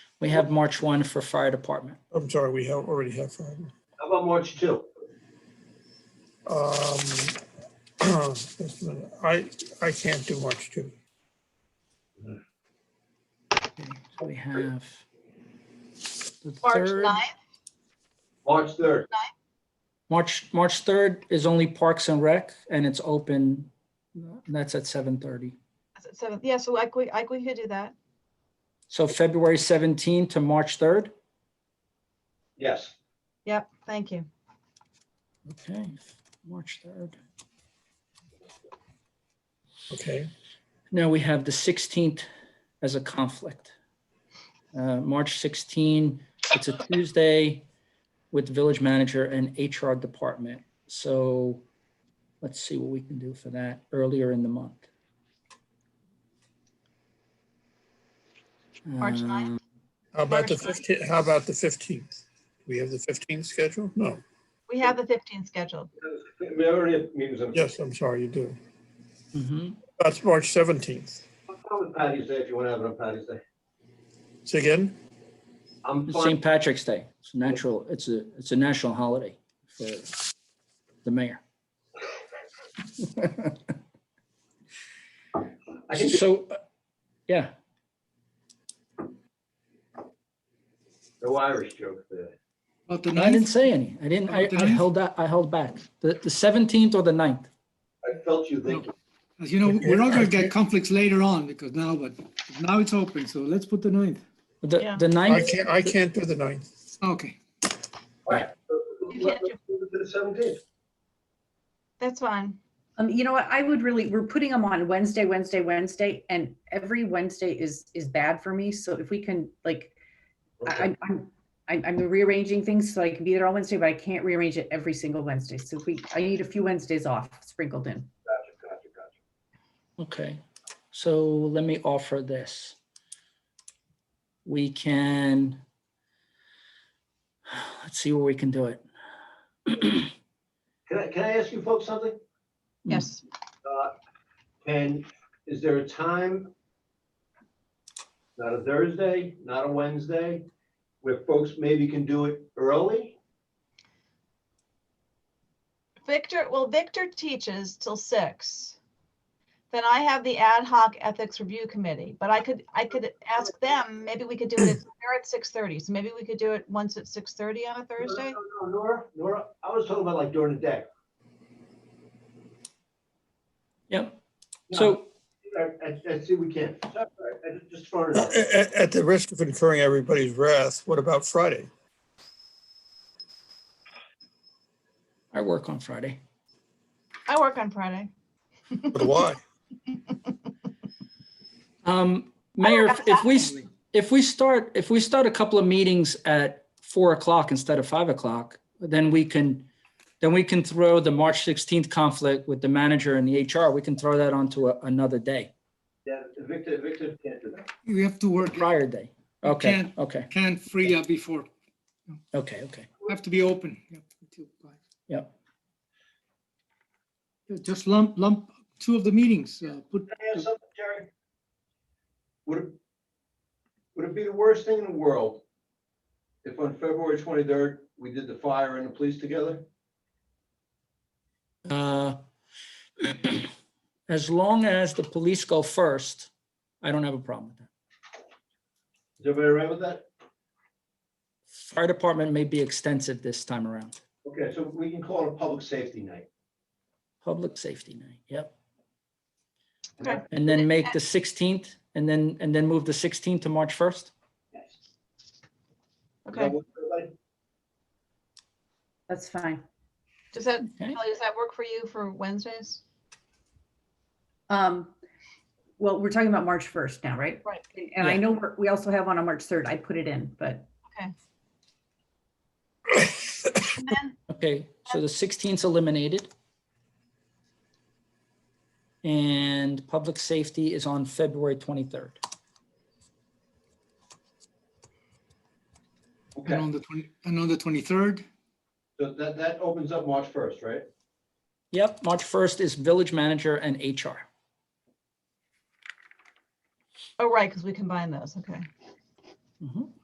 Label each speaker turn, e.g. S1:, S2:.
S1: We have March 1 for fire department.
S2: I'm sorry, we have, already have five.
S3: How about March two?
S2: Um, just a minute. I, I can't do much too.
S1: Okay, so We have the
S4: March
S1: third-
S4: 9th,
S3: March third.
S1: March, March 3rd is only Parks and Rec and it's open. and That's at 7:30.
S4: Is it seventh? Yeah, so I could, I could do that.
S1: So February 17 to March 3rd.
S3: Yes.
S4: Yep, thank you.
S1: Okay, March 3rd.
S2: Okay,
S1: Now we have the 16th as a conflict. Uh, March 16, it's a Tuesday with village manager and HR department. So let's see what we can do for that earlier in the month.
S4: March 9th?
S1: Uh,
S2: how about the
S4: March ninth.
S2: fifteenth, how about the fifteenth? We have the fifteenth scheduled? No,
S4: We have the 15th scheduled.
S3: We already have meetings on.
S2: yes, I'm sorry, you do.
S1: mhm.
S2: That's March seventeenth.
S3: I'm with Patty's Day if you want to have it on Patty's Day.
S2: Say again?
S3: I'm
S1: It's
S3: fine.
S1: St. Patrick's Day. It's a natural, it's a, it's a national holiday for the mayor.
S3: I can do-
S1: So, uh, yeah.
S3: No Irish joke there.
S5: About the
S1: I didn't
S5: ninth,
S1: say any. I didn't, I,
S5: About the
S1: I
S5: ninth?
S1: held that, I held back. The, the seventeenth or the ninth?
S3: I felt you thinking.
S5: as you know, we're not gonna get conflicts later on because now, but now it's open, so let's put the ninth.
S1: The,
S4: Yeah.
S1: the
S2: I
S1: ninth,
S2: can't, I can't do the ninth.
S5: Okay,
S4: You can't do-
S3: The seventeenth.
S4: That's fine.
S6: Um, you know what, I would really, we're putting them on Wednesday, Wednesday, Wednesday, and every Wednesday is, is bad for me, so if we can, like, I, I'm- I'm, I'm, I'm rearranging things, so I can be there on Wednesday, but I can't rearrange it every single Wednesday, so if we, I need a few Wednesdays off sprinkled in.
S3: Gotcha, gotcha, gotcha.
S1: okay. So let me offer this. We can, let's see where we can do it.
S3: Can I, can I ask you folks something?
S1: Mm.
S4: Yes.
S3: Uh, Can, is there a time? Not a Thursday, not a Wednesday, where folks maybe can do it early?
S4: Victor, well, Victor teaches till six. Then I have the ad hoc ethics review committee, but I could, I could ask them, maybe we could do it, at- they're at 6:30, so maybe we could do it once at 6:30 on a Thursday?
S3: No, no, no, Nora, Nora, I was talking about like during the day.
S1: Yep.
S3: No,
S1: So,
S3: I, I, I see we can. It's all right. I ju- just throwing it out.
S2: At, at- at the risk of incurring everybody's wrath, what about Friday?
S1: I work on Friday.
S4: I work on Friday.
S2: But why?
S1: Um, Mayor, if- if we, s- if we start, if we start a couple of meetings at four o'clock instead of five o'clock, then we can, then we can throw the March sixteenth conflict with the manager and the HR, we can throw that onto a- another day,
S3: Yeah, Victor, Victor can't do that.
S5: we have to work,
S1: prior day. Okay,
S5: can't-
S1: okay,
S5: can't free up before,
S1: okay, okay.
S5: have to be open. Yep, until five.
S1: Yep.
S5: Yeah, Just lump, lump two of the meetings, uh, put,
S3: Can I ask something, Jerry? Would it, would it be the worst thing in the world if on February twenty-third, we did the fire and the police together?
S1: Uh, As long as the police go first, I don't have a problem with that.
S3: Is everybody all right with that?
S1: Fire department may be extensive this time around.
S3: Okay, so we can call it a public safety night.
S1: Public safety night, yep.
S4: Okay.
S1: And then make the 16th and then, and then move the 16th to March 1st?
S3: Yes. Is that
S4: Okay,
S3: what everybody-
S6: That's fine.
S4: does that,
S1: Okay.
S4: Kelly, does that work for you for Wednesdays?
S6: Um, well, we're talking about March first now, right?
S4: Right.
S6: And I
S1: Yeah.
S6: know we're- we also have one on March third, I put it in, but
S4: And then,
S1: Okay, so the 16th's eliminated. And public safety is on February 23rd.
S5: and
S3: Okay,
S5: on the twenty, and on the twenty-third,
S3: so that, that opens up March first, right?
S1: Yep, March 1st is village manager and HR.
S4: oh, right, because we combine those, okay.
S1: Mhm.